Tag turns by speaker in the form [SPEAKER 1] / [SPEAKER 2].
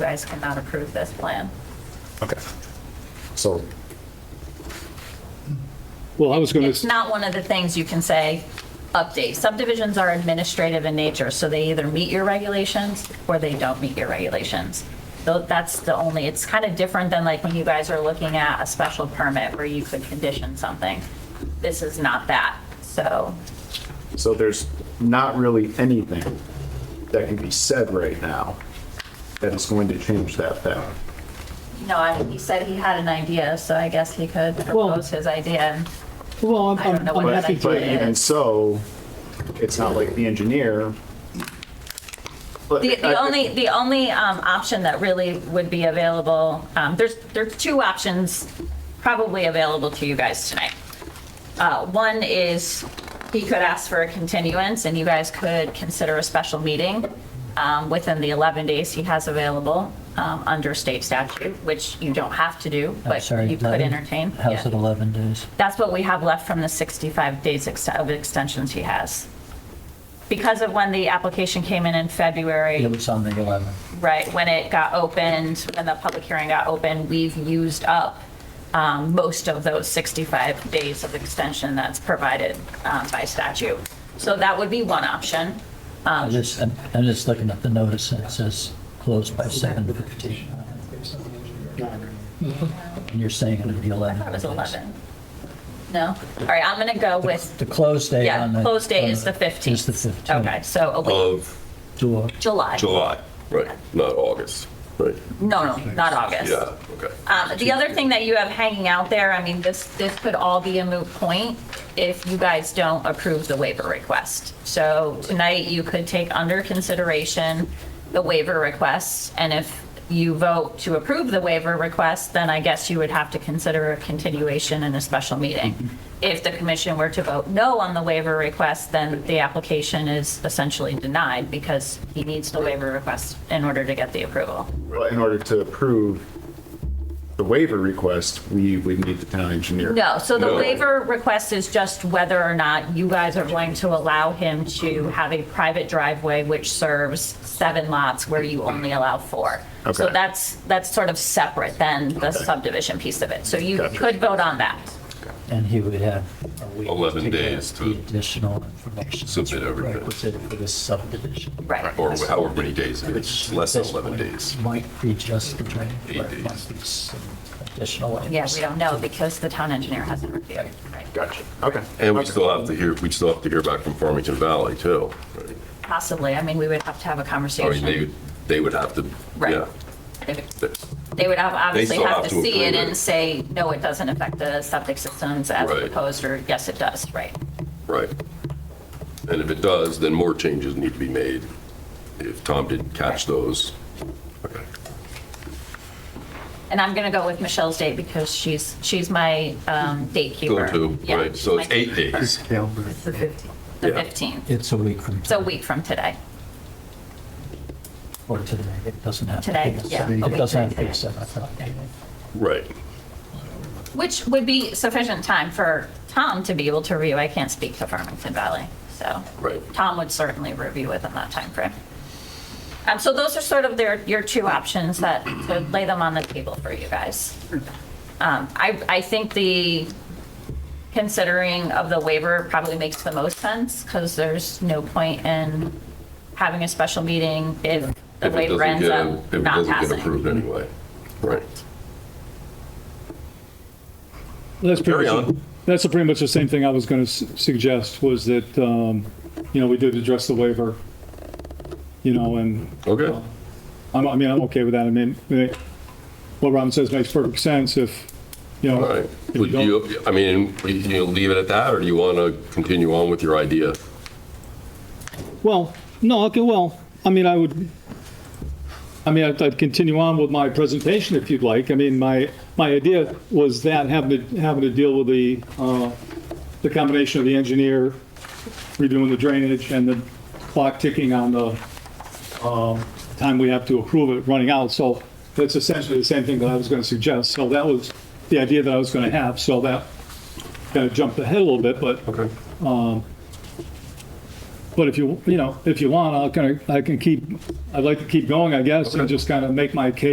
[SPEAKER 1] guys cannot approve this plan.
[SPEAKER 2] Okay. So,
[SPEAKER 3] Well, I was going
[SPEAKER 1] It's
[SPEAKER 3] to,
[SPEAKER 1] not one of the things you can say, update. Subdivisions are administrative in nature, so they either meet your regulations or they don't meet your regulations. So that's the only, it's kind of different than like when you guys are looking at a special permit where you could condition something. This is not that, so.
[SPEAKER 2] so there's not really anything that can be said right now that is going to change that fact.
[SPEAKER 1] No, I, he said he had an idea, so I guess he could propose his idea.
[SPEAKER 3] well, I'm-
[SPEAKER 1] I don't know
[SPEAKER 3] I'm
[SPEAKER 1] what
[SPEAKER 3] happy
[SPEAKER 1] that
[SPEAKER 3] to,
[SPEAKER 2] But
[SPEAKER 1] idea
[SPEAKER 2] even
[SPEAKER 1] is.
[SPEAKER 2] so, it's not like the engineer.
[SPEAKER 1] The, the only, the only um, option that really would be available, um, there's, there's two options probably available to you guys tonight. Uh, One is he could ask for a continuance and you guys could consider a special meeting um, within the 11 days he has available um, under state statute, which you don't have to do,
[SPEAKER 4] I'm
[SPEAKER 1] but
[SPEAKER 4] sorry,
[SPEAKER 1] you could
[SPEAKER 4] 11?
[SPEAKER 1] entertain.
[SPEAKER 4] How's
[SPEAKER 1] Yeah.
[SPEAKER 4] it 11 days?
[SPEAKER 1] That's what we have left from the 65 days ex- of extensions he has. Because of when the application came in in February,
[SPEAKER 4] It was on the 11th.
[SPEAKER 1] right, when it got opened, when the public hearing got opened, we've used up um, most of those 65 days of extension that's provided um, by statute. So that would be one option.
[SPEAKER 4] I just, I'm I'm just looking at the notice and it says closed by 7:15. Mm-hmm. And you're saying it'll be 11.
[SPEAKER 1] That was 11. No? All right, I'm going to go with,
[SPEAKER 4] The close date
[SPEAKER 1] yeah,
[SPEAKER 4] on the.
[SPEAKER 1] close date
[SPEAKER 4] on
[SPEAKER 1] is the 15th.
[SPEAKER 4] Is the 15th.
[SPEAKER 1] Okay, so a week,
[SPEAKER 5] of
[SPEAKER 4] Do a-
[SPEAKER 1] July.
[SPEAKER 5] July, right, not August, right?
[SPEAKER 1] No, no, not August.
[SPEAKER 5] Yeah, okay.
[SPEAKER 1] Um, The other thing that you have hanging out there, I mean, this, this could all be a moot point if you guys don't approve the waiver request. So tonight, you could take under consideration the waiver request, and if you vote to approve the waiver request, then I guess you would have to consider a continuation in a special meeting. If the commission were to vote no on the waiver request, then the application is essentially denied because he needs the waiver request in order to get the approval.
[SPEAKER 2] Well, In order to approve the waiver request, we would need the town engineer.
[SPEAKER 1] No, so the
[SPEAKER 5] No.
[SPEAKER 1] waiver request is just whether or not you guys are going to allow him to have a private driveway which serves seven lots where you only allow four. So
[SPEAKER 2] Okay.
[SPEAKER 1] that's, that's sort of separate than the subdivision piece of it. So you
[SPEAKER 2] Gotcha.
[SPEAKER 1] could vote on that.
[SPEAKER 4] And he would have a week.
[SPEAKER 5] 11
[SPEAKER 4] get
[SPEAKER 5] days to
[SPEAKER 4] The additional information. that's
[SPEAKER 5] submit everything.
[SPEAKER 4] Requisite for this subdivision.
[SPEAKER 1] Right.
[SPEAKER 5] Or however many days it is, less than
[SPEAKER 4] This
[SPEAKER 5] 11
[SPEAKER 4] one
[SPEAKER 5] days.
[SPEAKER 4] Might be just the drain.
[SPEAKER 5] Eight
[SPEAKER 4] but it might
[SPEAKER 5] days.
[SPEAKER 4] be some Additional.
[SPEAKER 1] Yeah, we don't know because the town engineer hasn't reviewed. Right.
[SPEAKER 2] Gotcha. Okay.
[SPEAKER 5] And we
[SPEAKER 2] Okay.
[SPEAKER 5] still have to hear, we still have to hear back from Farmington Valley too. right?
[SPEAKER 1] Possibly. I mean, we would have to have a
[SPEAKER 5] I mean, they,
[SPEAKER 1] conversation.
[SPEAKER 5] they would have to,
[SPEAKER 1] Right.
[SPEAKER 5] yeah.
[SPEAKER 1] They would have, obviously
[SPEAKER 5] still
[SPEAKER 1] have
[SPEAKER 5] have
[SPEAKER 1] to
[SPEAKER 5] to
[SPEAKER 1] see it
[SPEAKER 5] approve it.
[SPEAKER 1] and say, no, it doesn't affect the septic systems as
[SPEAKER 5] Right.
[SPEAKER 1] proposed, or yes, it does, right?
[SPEAKER 5] Right. And if it does, then more changes need to be made. If Tom didn't catch those, okay.
[SPEAKER 1] And I'm going to go with Michelle's date because she's, she's my um, date
[SPEAKER 5] Go
[SPEAKER 1] keeper.
[SPEAKER 5] to,
[SPEAKER 1] Yeah,
[SPEAKER 5] right, so it's
[SPEAKER 1] my-
[SPEAKER 5] eight days.
[SPEAKER 1] The
[SPEAKER 5] yeah.
[SPEAKER 1] 15th.
[SPEAKER 4] It's a week from.
[SPEAKER 1] It's a week from today.
[SPEAKER 4] Or today, it doesn't have to be.
[SPEAKER 1] Today,
[SPEAKER 4] a
[SPEAKER 1] yeah,
[SPEAKER 4] seven-
[SPEAKER 1] a week
[SPEAKER 4] It doesn't
[SPEAKER 1] from
[SPEAKER 4] have to be
[SPEAKER 1] today.
[SPEAKER 4] a seven o'clock meeting.
[SPEAKER 5] Right.
[SPEAKER 1] Which would be sufficient time for Tom to be able to review. I can't speak to Farmington Valley, so.
[SPEAKER 5] Right.
[SPEAKER 1] Tom would certainly review within that timeframe. Um, So those are sort of their, your two options that, to lay them on the table for you guys. Um, I, I think the considering of the waiver probably makes the most sense because there's no point in having a special meeting if the
[SPEAKER 5] If it
[SPEAKER 1] waiver
[SPEAKER 5] doesn't
[SPEAKER 1] ends
[SPEAKER 5] get-
[SPEAKER 1] up
[SPEAKER 5] If it
[SPEAKER 1] um, not
[SPEAKER 5] doesn't get
[SPEAKER 1] passing.
[SPEAKER 5] approved anyway. Right.
[SPEAKER 3] that's pretty
[SPEAKER 5] Carry
[SPEAKER 3] much,
[SPEAKER 5] on.
[SPEAKER 3] that's pretty much the same thing I was going to suggest, was that, um, you know, we did address the waiver, you know, and
[SPEAKER 5] Okay.
[SPEAKER 3] I'm, I mean, I'm okay with that. I mean, I mean, what Robin says makes perfect sense if, you
[SPEAKER 5] All
[SPEAKER 3] know,
[SPEAKER 5] right.
[SPEAKER 3] if you
[SPEAKER 5] Would
[SPEAKER 3] don't-
[SPEAKER 5] you, I mean, you you leave it at that, or do you want to continue on with your idea?
[SPEAKER 3] Well, no, okay, well, I mean, I would, I mean, I'd I'd continue on with my presentation if you'd like. I mean, my, my idea was that having to, having to deal with the, uh, the combination of the engineer redoing the drainage and the clock ticking on the, um, time we have to approve it running out. So that's essentially the same thing that I was going to suggest. So that was the idea that I was going to have. So that kind of jumped ahead a little bit, but
[SPEAKER 5] Okay.
[SPEAKER 3] But if you, you know, if you want, I'll kind of, I can keep, I'd like to keep going, I guess, and
[SPEAKER 5] Okay.
[SPEAKER 3] just kind of make my case